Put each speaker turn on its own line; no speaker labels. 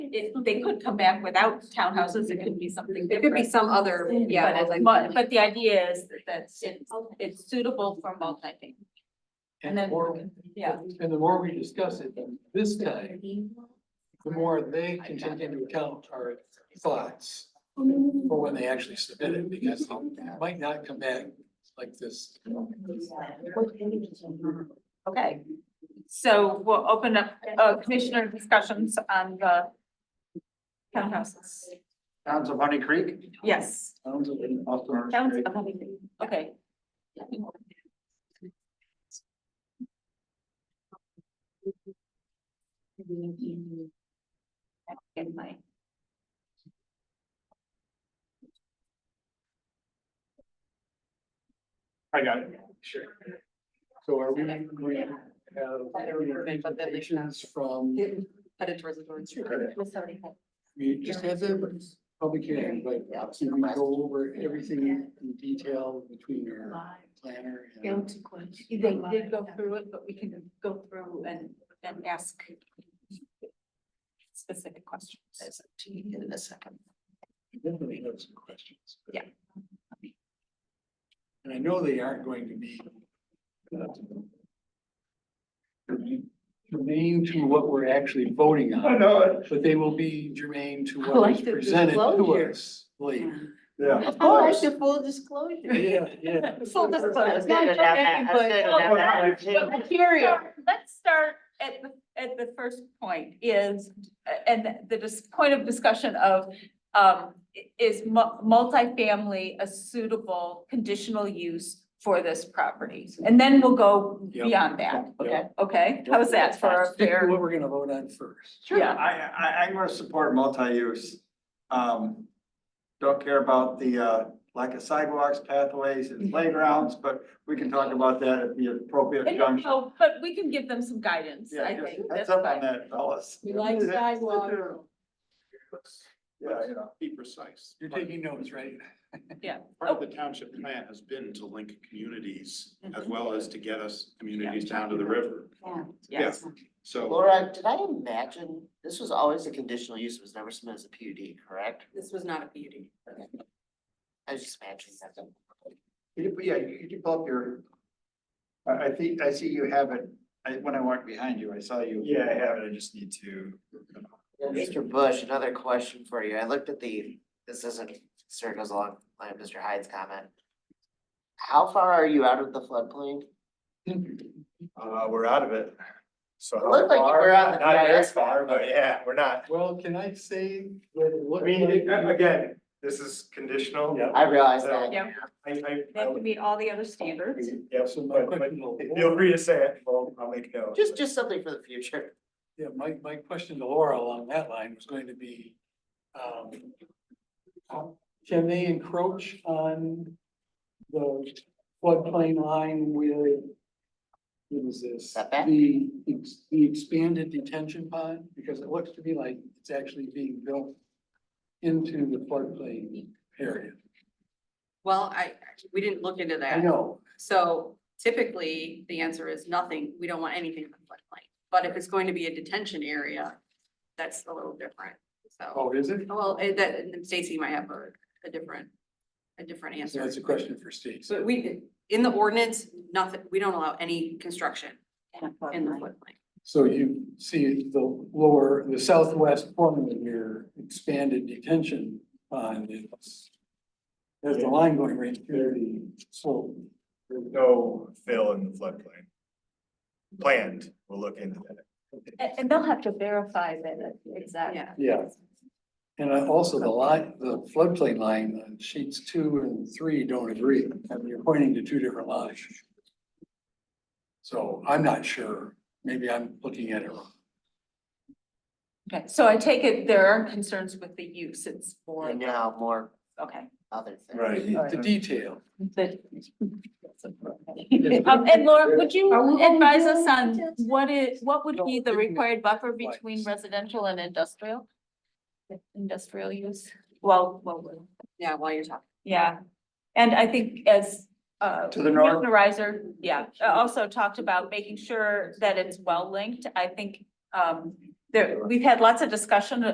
it, they could come back without townhouses, it could be something
There could be
different.
some other, yeah,
But,
like.
it- but, but the idea is that that's, it's, it's suitable for multi-family.
And
then-
the more,
Yeah.
and the more we discuss it this time, the more they can take into account our thoughts for when they actually submit it, because it might not come back like this.
Okay, so we'll open up, uh, commissioner discussions on the townhouses.
Towns of Honey Creek?
Yes.
Towns of Austin.
Towns of Huntington, okay. Get my.
I got it, sure.
So are we, we have recommendations from,
Headed towards the door.
we just had the public hearing, but obviously we go over everything in detail between our planner and.
They did go through it, but we can go through and, and ask specific questions.
In a second.
Definitely have some questions. but-
Yeah.
And I know they aren't going to be. uh, Germane to what we're actually voting
I
on,
know it.
but they will be germane to what is
Collective
presented to
disclosure.
us. Like,
Yeah.
I like the full disclosure.
yeah, yeah.
Full
disclosure.
Material.
Let's start at the, at the first point is, and the dis- point of discussion of, um, is mu- multifamily a suitable conditional use for this property? And then we'll go
Yep.
beyond that, okay,
Yep.
okay? How's that for a
Stick to
fair?
what we're gonna vote on first.
Yeah.
I, I, I'm gonna support multi-use. Um, don't care about the, uh, lack of sidewalks, pathways
Mhm.
and playgrounds, but we can talk about that at the appropriate
And,
junction.
oh, But we can give them some guidance,
Yeah,
I
just
think.
heads
That's
up on
fine.
that, fellas.
We like sidewalks.
Yeah, you know.
Be precise.
You're taking notes, right?
Part of the township plan has been to link communities as well as to get us communities down to the river.
Yes.
So
Laura, did I imagine, this was always a conditional use, it was never submitted as a PUD, correct?
This was not a beauty.
I was just imagining that.
You- Yeah, you you develop your. I, I think, I see you have it, I, when I walked behind you, I saw you. Yeah, I have it, I just need to.
Mr. Bush, another question for you. I looked at the, this isn't, sort of goes along line of Mr. Hyde's comment. How far are you out of the floodplain?
Uh, we're out of it. So.
It looked like you were on the dais.
far, but yeah, we're not.
Well, can I say what it
I
looked
mean, it-
like?
again, this is conditional. Yeah.
I realize that.
Yeah,
I, I.
they have to meet all the other standards.
Yeah,
So my
but, but
question will-
feel free to say it, well, I'll make notes.
Just, just something for the future.
Yeah, my, my question to Laura along that line was going to be, um, how- can they encroach on the floodplain line with, what is this?
Setback?
The, ex- the expanded detention pond, because it looks to me like it's actually being built into the floodplain area.
Well, I, we didn't look into
I
that.
know,
So typically, the answer is nothing. We don't want anything in the floodplain. But if it's going to be a detention area, that's a little different. So,
oh, is it?
well, eh, that, and Stacy might have a, a different, a different
So
answer.
that's a question for Steve.
So we, in the ordinance, nothing, we don't allow any construction in the floodplain.
So you see the lower, the southwest corner of your expanded detention pond. it's- There's the line going right through the slope.
No fill in the floodplain. Planned, we'll look into that.
And, and they'll have to verify that, exactly.
Yeah.
Yeah. And I- also the line, the floodplain line on sheets two and three don't agree. I mean, you're pointing to two different lines. So I'm not sure. Maybe I'm looking at it wrong.
Okay, so I take it there aren't concerns with the use, it's for,
And now more
okay.
other things.
Right.
The detail.
Um, and Laura, would you advise us on what is, what would be the required buffer between residential and industrial? Industrial use? Well, well,
Yeah, while you're talking.
yeah, and I think as, uh.
To the north.
Commissioner Reiser, yeah, uh, also talked about making sure that it's well linked, I think, um, there, we've had lots of discussion